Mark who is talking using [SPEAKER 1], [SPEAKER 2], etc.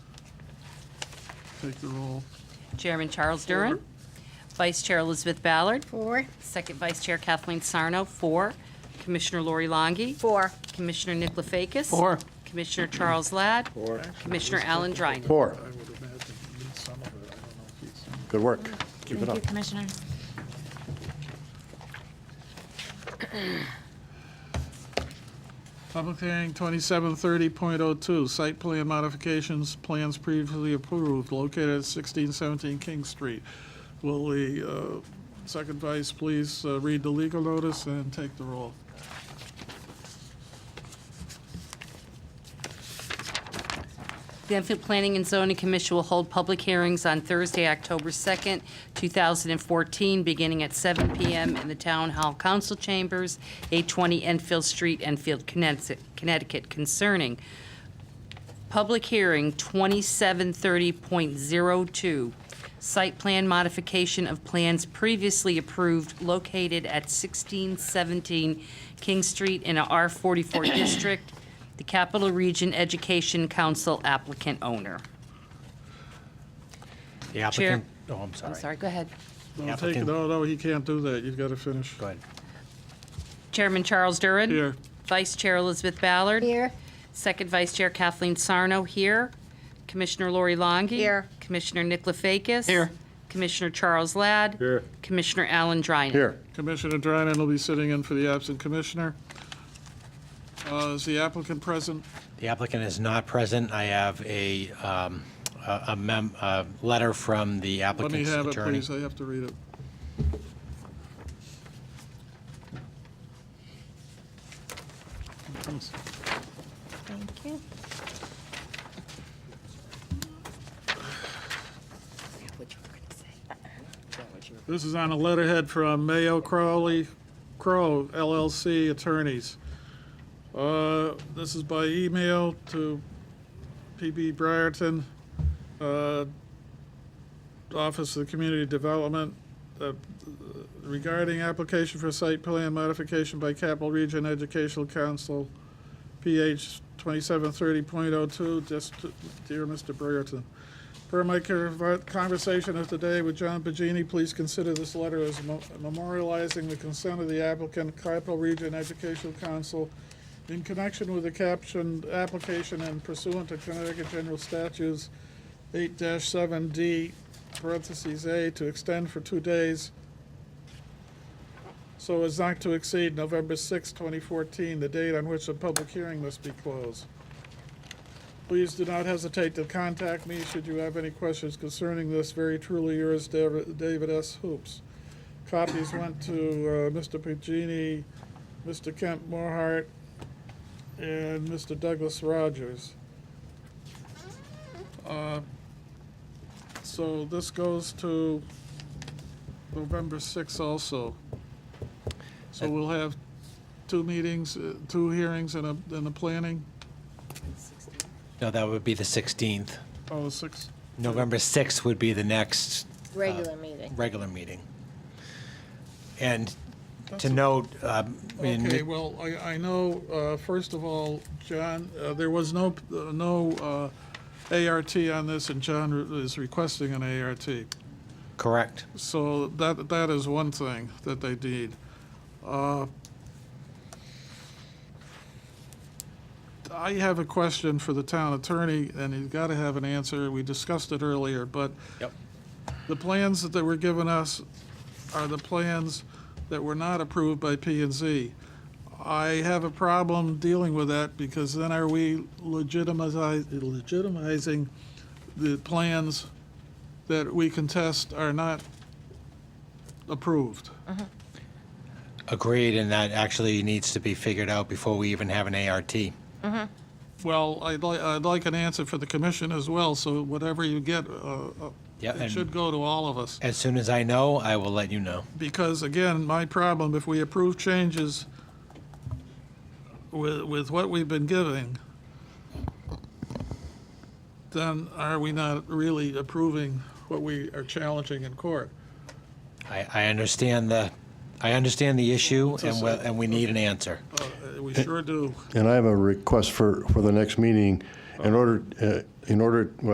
[SPEAKER 1] Take the roll.
[SPEAKER 2] Chairman Charles Duran. Vice Chair Elizabeth Ballard.
[SPEAKER 3] Four.
[SPEAKER 2] Second Vice Chair Kathleen Sarno, four. Commissioner Lori Longi.
[SPEAKER 3] Four.
[SPEAKER 2] Commissioner Nick Lefakis.
[SPEAKER 1] Four.
[SPEAKER 2] Commissioner Charles Ladd. Four. Commissioner Alan Dryden.
[SPEAKER 4] Four.
[SPEAKER 1] I would imagine he needs some of it. I don't know if he's.
[SPEAKER 4] Good work. Keep it
[SPEAKER 5] Thank
[SPEAKER 4] up.
[SPEAKER 5] you, Commissioners.
[SPEAKER 1] Public hearing 2730.02, site plan modifications, plans previously approved, located at 1617 King Street. Will the uh, second vice please uh, read the legal notice and take the roll?
[SPEAKER 2] The Enfield Planning and Zoning Commission will hold public hearings on Thursday, October 2nd, 2014, beginning at 7 PM in the Town Hall Council Chambers, 820 Enfield Street, Enfield, Connecticut- Connecticut, concerning Public hearing 2730.02, site plan modification of plans previously approved located at 1617 King Street in a R44 district, the Capital Region Education Council applicant owner.
[SPEAKER 6] The
[SPEAKER 2] Chair-
[SPEAKER 6] applicant, oh, I'm sorry.
[SPEAKER 2] I'm sorry, go ahead.
[SPEAKER 1] No, take it,
[SPEAKER 6] Applicant.
[SPEAKER 1] no, no, he can't do that. You've got to finish.
[SPEAKER 6] Go ahead.
[SPEAKER 2] Chairman Charles Duran.
[SPEAKER 1] Here.
[SPEAKER 2] Vice Chair Elizabeth Ballard.
[SPEAKER 3] Here.
[SPEAKER 2] Second Vice Chair Kathleen Sarno here. Commissioner Lori Longi.
[SPEAKER 3] Here.
[SPEAKER 2] Commissioner Nick Lefakis.
[SPEAKER 1] Here.
[SPEAKER 2] Commissioner Charles Ladd.
[SPEAKER 4] Here.
[SPEAKER 2] Commissioner Alan Drynan.
[SPEAKER 4] Here.
[SPEAKER 1] Commissioner Drynan will be sitting in for the absent commissioner. Uh, Is the applicant present?
[SPEAKER 6] The applicant is not present. I have a, um, a a mem, a letter from the
[SPEAKER 1] Let me
[SPEAKER 6] applicant's
[SPEAKER 1] have it,
[SPEAKER 6] attorney.
[SPEAKER 1] please. I have to read it.
[SPEAKER 5] Thank you.
[SPEAKER 1] This is on a letterhead from Mayo Crowley Crow LLC attorneys. Uh, This is by email to PB Briarton, uh, Office of Community Development, uh, regarding application for site plan modification by Capital Region Educational Council, PH 2730.02, just, to- dear Mr. Briarton. Per my conver- conversation of today with John Pagini, please consider this letter as mo- memorializing the consent of the applicant, Capital Region Educational Council, in connection with the captioned application and pursuant to Connecticut General Statutes eight seven D, parentheses A, to extend for two days so as not to exceed November 6, 2014, the date on which the public hearing must be closed. Please do not hesitate to contact me should you have any questions concerning this. Very truly yours, Dav- David S. Hoops. Copies went to uh, Mr. Pagini, Mr. Kent Morhart, and Mr. Douglas Rogers. Uh, So this goes to November 6 also. So we'll have two meetings, uh, two hearings and a, and a planning,
[SPEAKER 6] No, that would be the 16th.
[SPEAKER 1] oh, six,
[SPEAKER 6] November 6th would be the next
[SPEAKER 3] Regular meeting.
[SPEAKER 6] regular meeting. And to
[SPEAKER 1] a-
[SPEAKER 6] note, um, in
[SPEAKER 1] Okay,
[SPEAKER 6] mid-
[SPEAKER 1] well, I, I know, uh, first of all, John, uh, there was no, uh, no uh, ART on this, and John is requesting an ART.
[SPEAKER 6] correct,
[SPEAKER 1] So that, that is one thing that they need. Uh, I have a question for the town attorney, and he's got to have an answer. We discussed it earlier, but
[SPEAKER 6] Yep.
[SPEAKER 1] the plans that they were giving us are the plans that were not approved by P and Z. I have a problem dealing with that because then are we legitimizing, legitimizing the plans that we contest are not approved?
[SPEAKER 6] agreed, and that actually needs to be figured out before we even have an ART.
[SPEAKER 1] Well, I'd like, I'd like an answer for the commission as well, so whatever you get, uh, uh,
[SPEAKER 6] Yeah,
[SPEAKER 1] it should
[SPEAKER 6] and
[SPEAKER 1] go to all of us.
[SPEAKER 6] as soon as I know, I will let you know.
[SPEAKER 1] Because again, my problem, if we approve changes with, with what we've been giving, then are we not really approving what we are challenging in court?
[SPEAKER 6] I, I understand the, I understand the issue, and we, and we need an answer.
[SPEAKER 1] Uh, We sure do.
[SPEAKER 4] And I have a request for, for the next meeting. In order, uh, in order, well,